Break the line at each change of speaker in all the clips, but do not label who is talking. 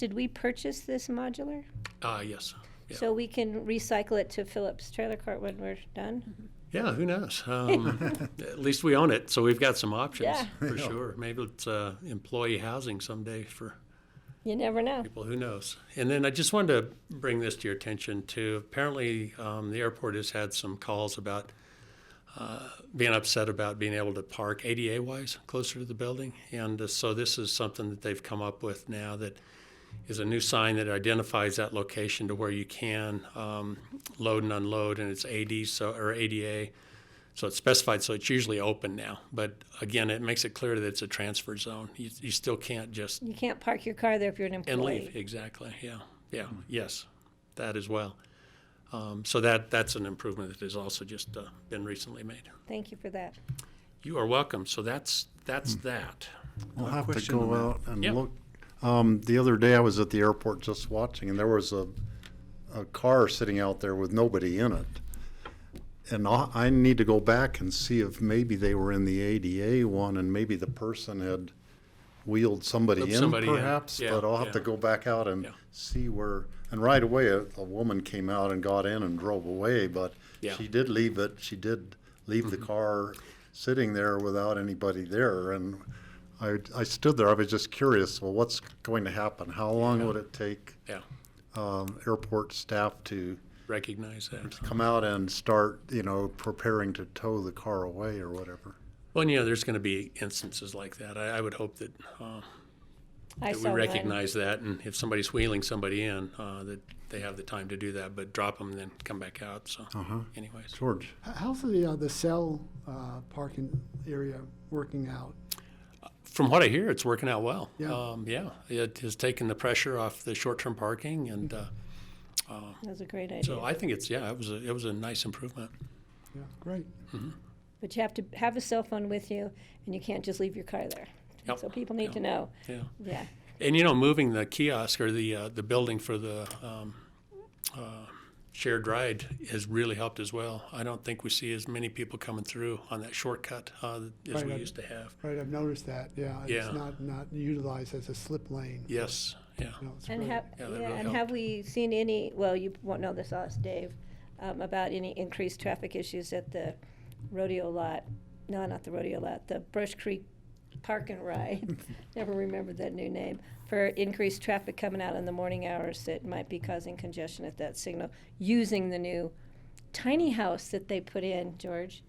Did we purchase this modular?
Uh, yes. Yeah.
So we can recycle it to Phillips Trailer Court when we're
Mm-hmm.
done?
Yeah, who knows? Um, at least we own it, so we've got some options
Yeah.
for sure. Maybe it's uh, employee housing someday for
You never know.
people. Who knows? And then I just wanted to bring this to your attention too. Apparently, um, the airport has had some calls about uh, being upset about being able to park ADA wise closer to the building, and uh, so this is something that they've come up with now that is a new sign that identifies that location to where you can um, load and unload, and it's AD so or ADA. So it's specified, so it's usually open now. But again, it makes it clear that it's a transfer zone. You, you still can't just
You can't park your car there if you're an
and
employee.
leave, exactly, yeah, yeah, yes, that as well. Um, So that, that's an improvement that has also just uh, been recently made.
Thank you for that.
You are welcome, so that's, that's that.
I'll have to
question on
go
that.
out and
Yeah.
look. Um, the other day I was at the airport just watching, and there was a, a car sitting out there with nobody in it. And I, I need to go back and see if maybe they were in the ADA one, and maybe the person had wheeled somebody
Flipped
in,
somebody in.
perhaps.
Yeah,
but I'll have to
yeah.
go back out and
Yeah.
see where. And right away, a, a woman came out and got in and drove away, but
Yeah. Mm-hmm.
she did leave it. She did leave the car sitting there without anybody there, and I, I stood there. I was just curious. Well, what's going to happen? How long would it take
Yeah,
um, airport staff to
recognize that.
come out and start, you know, preparing to tow the car away or whatever?
Well, and, you know, there's going to be instances like that. I, I would hope that, uh,
I
that we
saw one.
recognize that, and if somebody's wheeling somebody in, uh, that they have the time to do that, but drop them and then come back out, so anyways.
George,
H- How's the, uh, the cell, uh, parking area working out?
From what I hear, it's working out well.
Yeah.
Um, Yeah, it has taken the pressure off the short-term parking, and uh,
That was a great
So
idea.
I think it's, yeah, it was a, it was a nice improvement.
Yeah, great.
But you have to have a cell phone with you and you can't just leave your car there.
Yep.
So people need
Yep.
to know.
Yeah.
Yeah.
And you know, moving the kiosk or the, uh, the building for the, um, uh, shared ride has really helped as well. I don't think we see as many people coming through on that shortcut, uh, as
Right,
we
I-
used to have.
Right, I've noticed that, yeah.
Yeah.
It's not, not utilized as a slip lane.
Yes, yeah.
No, it's
And
great.
have,
Yeah,
yeah,
that really
and
helped.
have we seen any, well, you won't know this, I'll ask Dave, um, about any increased traffic issues at the rodeo lot? No, not the rodeo lot, the Brush Creek Park and Ride, never remembered that new name, for increased traffic coming out in the morning hours that might be causing congestion at that signal, using the new tiny house that they put in, George,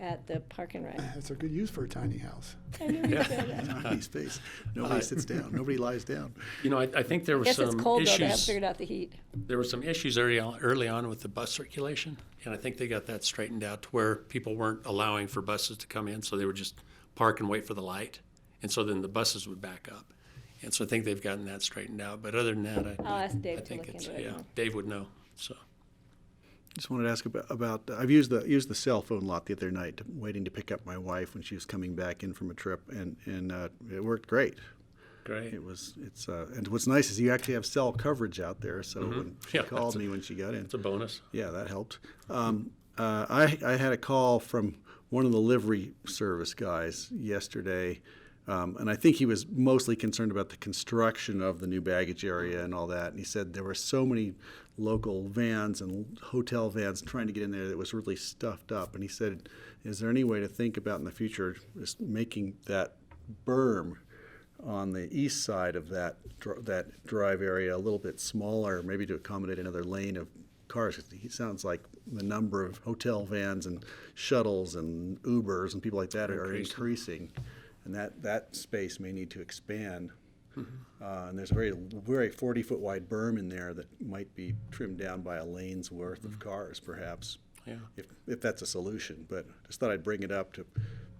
at the Park and Ride.
That's a good use for a tiny house.
I knew you'd say that.
Nobody stays.
Uh,
Nobody sits down. Nobody lies down.
You know, I, I think there were
Guess it's
some
cold though, they haven't
issues,
figured out the heat.
there were some issues early on, early on with the bus circulation. And I think they got that straightened out to where people weren't allowing for buses to come in, so they would just park and wait for the light. And so then the buses would back up. And so I think they've gotten that straightened out, but other than that, I.
I'll ask
I
Dave to
think
look
it's,
into it.
yeah, Dave would know, so.
Just wanted to ask about, about uh, I've used the used the cell phone lot the other night, waiting to pick up my wife when she was coming back in from a trip, and and uh, it worked great.
Great.
It was it's uh, and what's nice is you actually have cell coverage out there. So when she
Mm-hmm. Yeah, that's
called
a-
me when she got in,
It's a bonus.
Yeah, that helped. Um, uh, I, I had a call from one of the livery service guys yesterday, um, and I think he was mostly concerned about the construction of the new baggage area and all that. And he said there were so many local vans and hotel vans trying to get in there that it was really stuffed up. And he said, Is there any way to think about in the future just making that berm? on the east side of that dr- that drive area a little bit smaller, maybe to accommodate another lane of cars. It sounds like the number of hotel vans and shuttles and Ubers and people like that are increasing, and that that space may need to expand. Uh, and there's a very very 40 foot wide berm in there that might be trimmed down by a lane's worth of cars, perhaps.
Mm. Yeah.
If, if that's a solution, but just thought I'd bring it up to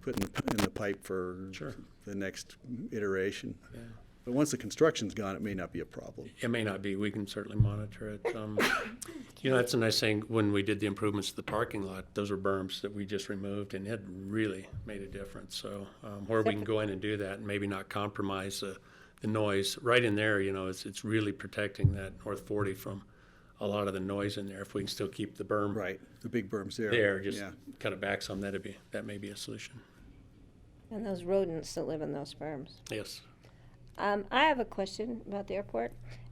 put in the, p- in the pipe for
Sure.
the next iteration. But once the construction's gone, it may not be a problem.
It may not be. We can certainly monitor it. Um, you know, that's a nice thing. When we did the improvements to the parking lot, those are berms that we just removed, and it really made a difference. So um, where we can go in and do that, and maybe not compromise the, the noise right in there. You know, it's it's really protecting that North 40 from a lot of the noise in there. If we can still keep the berm
Right, the big berm's there.
there, just
Yeah,
kind of back some. That'd be that may be a solution.
And those rodents that live in those farms.
Yes.
Um, I have a question about the airport.